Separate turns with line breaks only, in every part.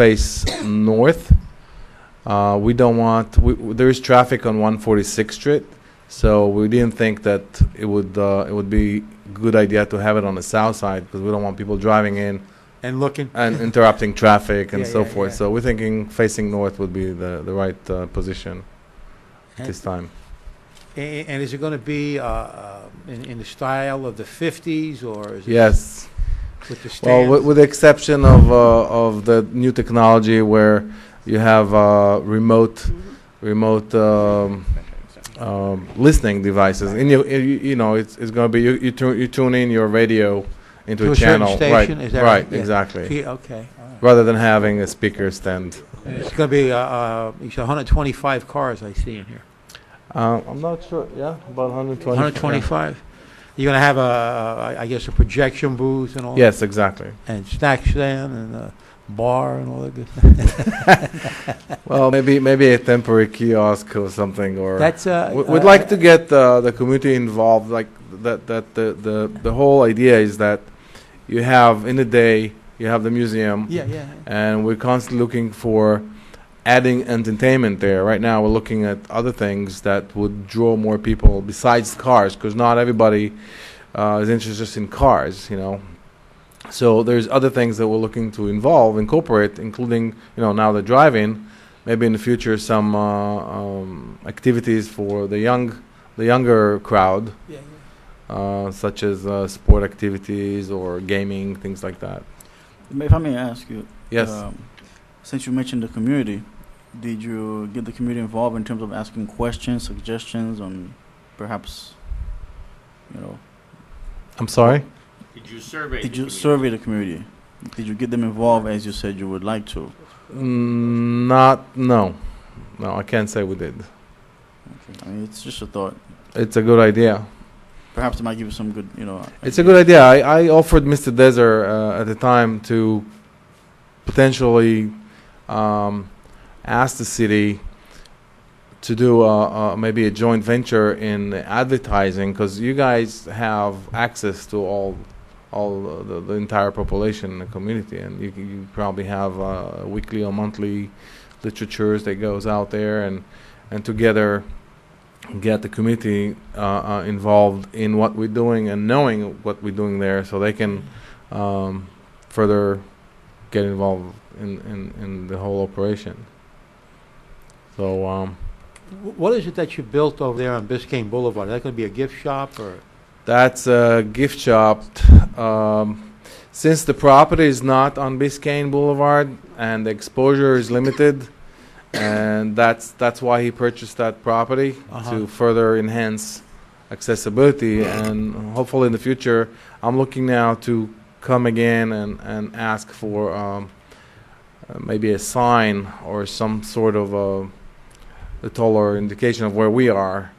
face north. Uh, we don't want, we, w- there is traffic on 146th Street, so we didn't think that it would, uh, it would be good idea to have it on the south side because we don't want people driving in
and looking.
and interrupting traffic and
Yeah,
so
yeah,
forth.
yeah.
So we're thinking facing north would be the, the right uh, position at this time.
And, and is it going to be uh, uh, in, in the style of the 50s or is it
Yes.
with the
Well,
stands?
with, with the exception of, uh, of the new technology where you have uh, remote, remote um, um, listening devices. And you, you, you know, it's, it's going to be you, you, tune, you tune in your radio into
To
a,
a certain
channel,
station,
right?
is that
right,
right? Yeah.
exactly.
Gee, okay. all right.
Rather than having a speaker stand.
And It's going to be, uh, uh, you said 125 cars I see in here.
Uh, I'm not sure. Yeah, about 120.
125? You're going to have a, uh, I guess, a projection booth and all?
Yeah. Yes, exactly.
And snack stand and a bar and all that good?
Well, maybe maybe a temporary kiosk or something, or
That's, uh...
We- We'd like to get uh, the community involved, like, that, that, the, the, the whole idea is that you have, in the day, you have the museum,
Yeah, yeah.
and we're constantly looking for adding entertainment there. Right now, we're looking at other things that would draw more people besides cars, because not everybody uh, is interested just in cars, you know? So there's other things that we're looking to involve, incorporate, including, you know, now the drive-in, maybe in the future, some uh, um, activities for the young, the younger crowd,
Yeah, yeah.
uh, such as uh, sport activities or gaming, things like that.
If I may ask you,
Yes.
um, since you mentioned the community, did you get the community involved in terms of asking questions, suggestions, on perhaps, you know,
I'm sorry?
Did you survey?
did
the
you
community?
survey the community? Did you get them involved as you said you would like to?
Mm, Not, no. No, I can't say we did.
I mean, it's just a thought.
It's a good idea.
Perhaps it might give you some good, you know.
It's a good idea. I, I offered Mr. Deser uh, at the time to potentially um, ask the city to do uh, uh, maybe a joint venture in advertising because you guys have access to all all uh, the, the entire population in the community and you, c- you probably have uh, weekly or monthly literatures that goes out there and and together get the community uh, uh, involved in what we're doing and knowing what we're doing there so they can um, further get involved in, in, in the whole operation. So, um,
Wh- What is it that you built over there on Biscayne Boulevard? Is that going to be a gift shop or?
That's a gift shop. Um, since the property is not on Biscayne Boulevard and the exposure is limited, and that's that's why he purchased that property
Uh-huh.
to further enhance accessibility. And hopefully, in the future, I'm looking now to come again and and ask for um, uh, maybe a sign or some sort of a, a taller indication of where we are.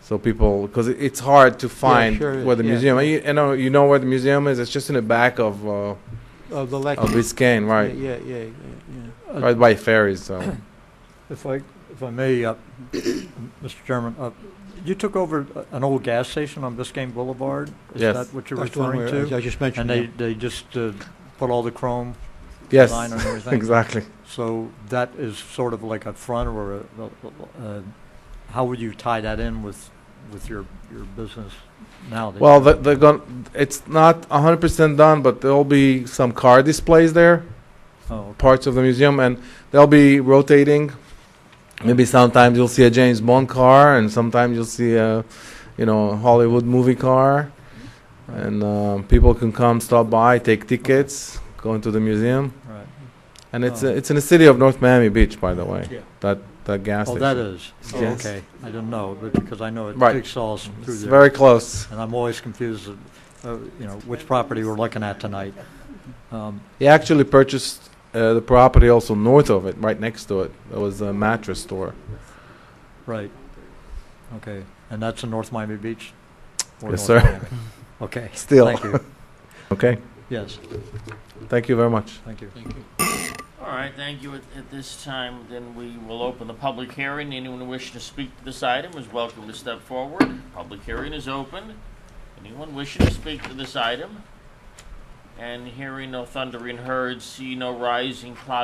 So people, because it's hard to find
sure is,
where the
yeah.
museum. You, you know, you know where the museum is. It's just in the back of uh,
Of the
of
Lexus?
Biscayne, right,
Yeah, yeah, yeah, yeah.
right by ferries. So
If I, if I may, uh, Mr. Chairman, uh, you took over a- an old gas station on Biscayne Boulevard?
Yes.
Is that what you're
That's the one
referring
where-
to?
I just
And
mentioned
they,
that.
they just uh, put all the chrome
yes,
design on everything?
exactly.
So that is sort of like a front or a- a, a- how would you tie that in with, with your, your business now? that
Well,
you're-
the- they're going. It's not 100 percent done, but there'll be some car displays there,
Oh,
parts of the museum, and they'll be rotating. Maybe sometimes you'll see a James Bond car, and sometimes you'll see a, you know, a Hollywood movie car,
Right.
and um, people can come stop by, take tickets, go into the museum,
right.
and it's
Oh.
uh, it's in the city of North Miami Beach, by the way.
Yeah.
That that gas
Oh,
station.
that is? Oh,
Yes.
Okay, I didn't know, but because I know it
Right.
jigsaws through
It's
there.
very close.
And I'm always confused, of, uh, you know, which property we're looking at tonight. Um,
He actually purchased uh, the property also north of it, right next to it. There was a mattress store.
Right. Okay. And that's in North Miami Beach? Or
Yes, sir.
North Miami? Okay.
Still.
Thank you.
Okay,
Yes,
thank you very much.
thank you.
All right, thank you. At, at this time, then we will open the public hearing. Anyone wishing to speak to this item is welcome to step forward. Public hearing is open. Anyone wishing to speak to this item? And hearing no thundering herds, see no rising clouds.